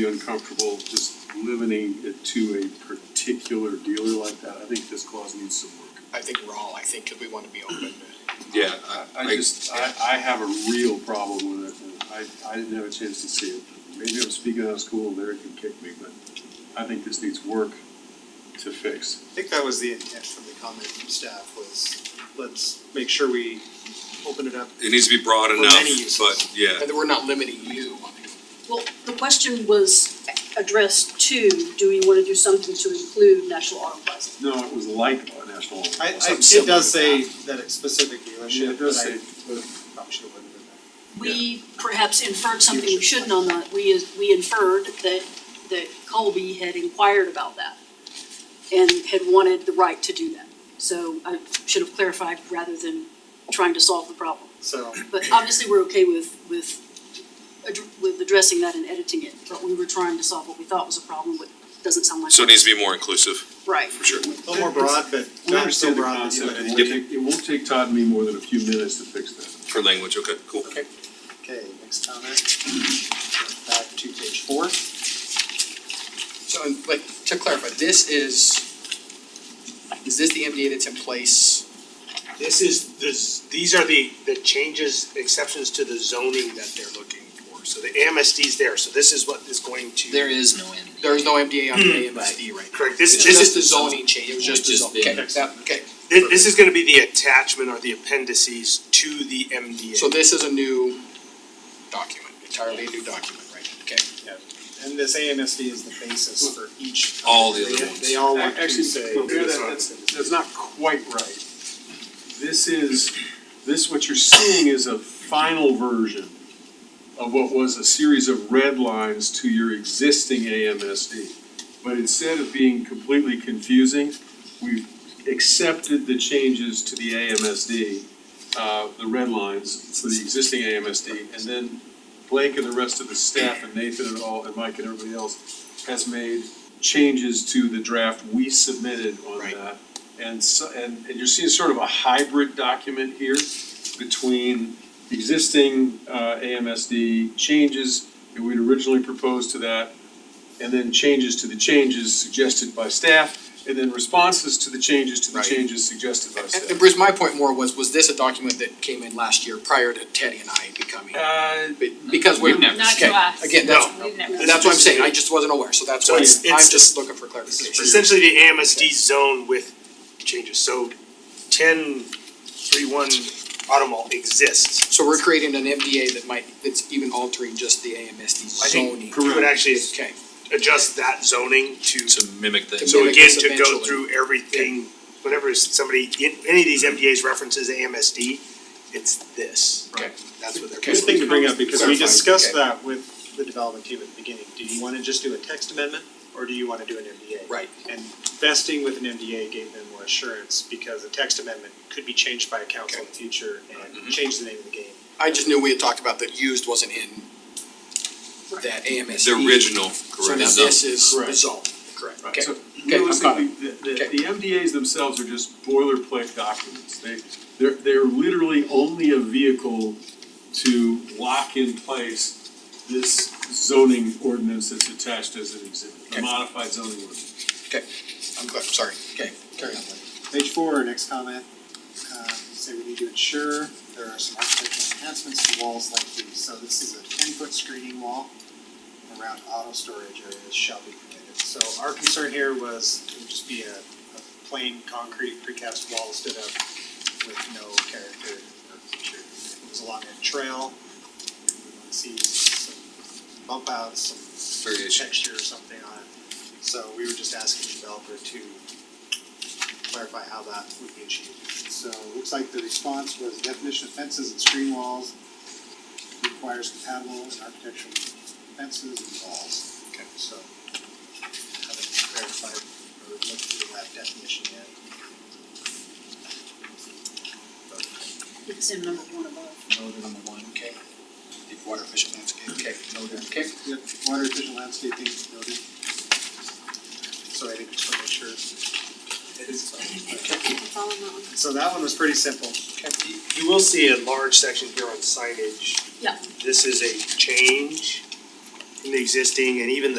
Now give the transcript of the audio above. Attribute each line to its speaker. Speaker 1: be uncomfortable just limiting it to a particular dealer like that. I think this clause needs some work.
Speaker 2: I think we're all, I think, because we want to be open.
Speaker 3: Yeah,
Speaker 1: I just, I, I have a real problem with it. and I, I didn't have a chance to see it. Maybe I'm speaking out of school, Larry can kick me, but I think this needs work to fix.
Speaker 2: I think that was the intent from the comment from staff was, let's make sure we open it up
Speaker 3: it needs to be broad
Speaker 2: For
Speaker 3: enough,
Speaker 2: many uses.
Speaker 3: but yeah,
Speaker 2: and that we're not limiting you.
Speaker 4: Well, the question was addressed to, do we wanna do something to include National Auto Plaza?
Speaker 1: No, it was like a national.
Speaker 5: I, I,
Speaker 2: Something
Speaker 5: it
Speaker 2: similar
Speaker 5: does say
Speaker 2: to
Speaker 5: that it's specific
Speaker 1: Yeah,
Speaker 5: dealership,
Speaker 1: it does
Speaker 5: but I
Speaker 1: say,
Speaker 5: probably should have written it
Speaker 4: We perhaps inferred something we shouldn't on that, we, we inferred that, that Colby had inquired about that and had wanted the right to do that. So I should have clarified rather than trying to solve the problem.
Speaker 5: So,
Speaker 4: But obviously, we're okay with, with, addr- with addressing that and editing it, but we were trying to solve what we thought was a problem, but doesn't sound like.
Speaker 3: so it needs to be more inclusive,
Speaker 4: Right.
Speaker 3: for sure.
Speaker 5: a little more broad, but
Speaker 1: we
Speaker 5: not so
Speaker 1: understand the
Speaker 5: broad that you
Speaker 1: concept. It
Speaker 5: let it.
Speaker 1: won't take, it won't take Todd and me more than a few minutes to fix that.
Speaker 3: For language, okay, cool.
Speaker 5: Okay. Okay, next comment, back to page four.
Speaker 2: So, and, like, to clarify, this is, is this the MDA that's in place?
Speaker 6: This is, this, these are the, the changes, exceptions to the zoning that they're looking for, so the MSD's there, so this is what is going to.
Speaker 2: There is no MDA. There is no MDA on
Speaker 7: Hmm.
Speaker 2: the MSD right now.
Speaker 6: Correct, this,
Speaker 2: It's
Speaker 6: this
Speaker 2: just
Speaker 6: is,
Speaker 2: the zoning change, it was just the
Speaker 8: Just
Speaker 2: zoning.
Speaker 8: the-
Speaker 2: Okay, that- okay.
Speaker 6: thi- this is gonna be the attachment or the appendices to the MDA.
Speaker 2: So this is a new document, entirely new document, right? Okay.
Speaker 5: And this AMSD is the basis for each.
Speaker 3: All the other
Speaker 5: They-
Speaker 3: ones.
Speaker 5: They all want to
Speaker 1: Actually,
Speaker 5: say.
Speaker 1: compare that, that's, that's not quite right. This is, this, what you're seeing is a final version of what was a series of red lines to your existing AMSD. But instead of being completely confusing, we've accepted the changes to the AMSD, uh, the red lines for the existing AMSD, and then Blake and the rest of the staff and Nathan and all, and Mike and everybody else has made changes to the draft we submitted on
Speaker 6: Right.
Speaker 1: that. And so, and, and you're seeing sort of a hybrid document here between existing, uh, AMSD changes that we'd originally proposed to that, and then changes to the changes suggested by staff, and then responses to the changes to the
Speaker 2: Right.
Speaker 1: changes suggested by
Speaker 2: And, and
Speaker 1: staff.
Speaker 2: Bruce, my point more was, was this a document that came in last year prior to Teddy and I becoming?
Speaker 1: Uh,
Speaker 2: Be- Because we're,
Speaker 8: We've never
Speaker 7: Not
Speaker 2: okay,
Speaker 7: to us.
Speaker 2: again, that's,
Speaker 7: We've never.
Speaker 2: that's what I'm saying, I just wasn't aware, so that's
Speaker 6: So
Speaker 2: why, I'm
Speaker 6: it's- it's-
Speaker 2: just looking for
Speaker 6: This is
Speaker 2: clarification.
Speaker 6: essentially the AMSD zone with changes, so ten three one Automall exists.
Speaker 2: So we're creating an MDA that might, that's even altering just the AMSD
Speaker 6: I
Speaker 2: zoning.
Speaker 6: think we would actually
Speaker 2: Okay,
Speaker 6: adjust that zoning to
Speaker 3: To mimic
Speaker 2: To
Speaker 3: things.
Speaker 6: So
Speaker 2: mimic
Speaker 6: again,
Speaker 2: this
Speaker 6: to go
Speaker 2: eventually.
Speaker 6: through everything, whenever somebody, in- any of these MDAs references AMSD, it's this.
Speaker 2: Okay.
Speaker 6: That's what they're.
Speaker 5: Good thing to bring up, because we
Speaker 2: Clarifying,
Speaker 5: discussed
Speaker 2: okay.
Speaker 5: that with the development team at the beginning, do you wanna just do a text amendment, or do you wanna do an MDA?
Speaker 2: right,
Speaker 5: And vesting with an MDA gave them more assurance, because a text amendment could be changed by a council in the future
Speaker 6: Mm-hmm.
Speaker 5: and change the name of the game.
Speaker 2: I just knew we had talked about that used wasn't in that AMSD.
Speaker 3: The original,
Speaker 2: E. So
Speaker 3: correct.
Speaker 2: now E this is
Speaker 1: Correct.
Speaker 2: the zone, correct, okay.
Speaker 1: So
Speaker 2: Okay, I've got
Speaker 1: realistically, the, the,
Speaker 2: Okay.
Speaker 1: the MDAs themselves are just boilerplate documents. They, they're, they're literally only a vehicle to lock in place this zoning ordinance that's attached as an exhibit,
Speaker 2: Okay.
Speaker 1: a modified zoning ordinance.
Speaker 2: I'm glad, sorry, okay, carry on.
Speaker 5: Page four, next comment, um, say we need to ensure there are some architectural enhancements to walls like these, so this is a ten-foot screening wall around auto storage areas shall be permitted, so our concern here was it would just be a, a plain concrete precast wall stood up with no character or feature, it was along a trail, we want to see some bump outs, some
Speaker 3: Variation.
Speaker 5: texture or something on it, so we were just asking the developer to clarify how that would be achieved. So it looks like the response was definition of fences and screen walls requires compatible and architectural fences and walls. Okay. So haven't clarified or looked through that definition yet.
Speaker 4: It's in number one above.
Speaker 2: Noted number one, okay. The water efficient landscape, okay, noted, okay.
Speaker 5: Yep, water efficient landscaping noted. So I didn't just wanna make sure.
Speaker 4: I think it's all in that one.
Speaker 5: So that one was pretty simple.
Speaker 6: You- You will see a large section here on signage.
Speaker 4: Yeah.
Speaker 6: This is a change. the existing and even the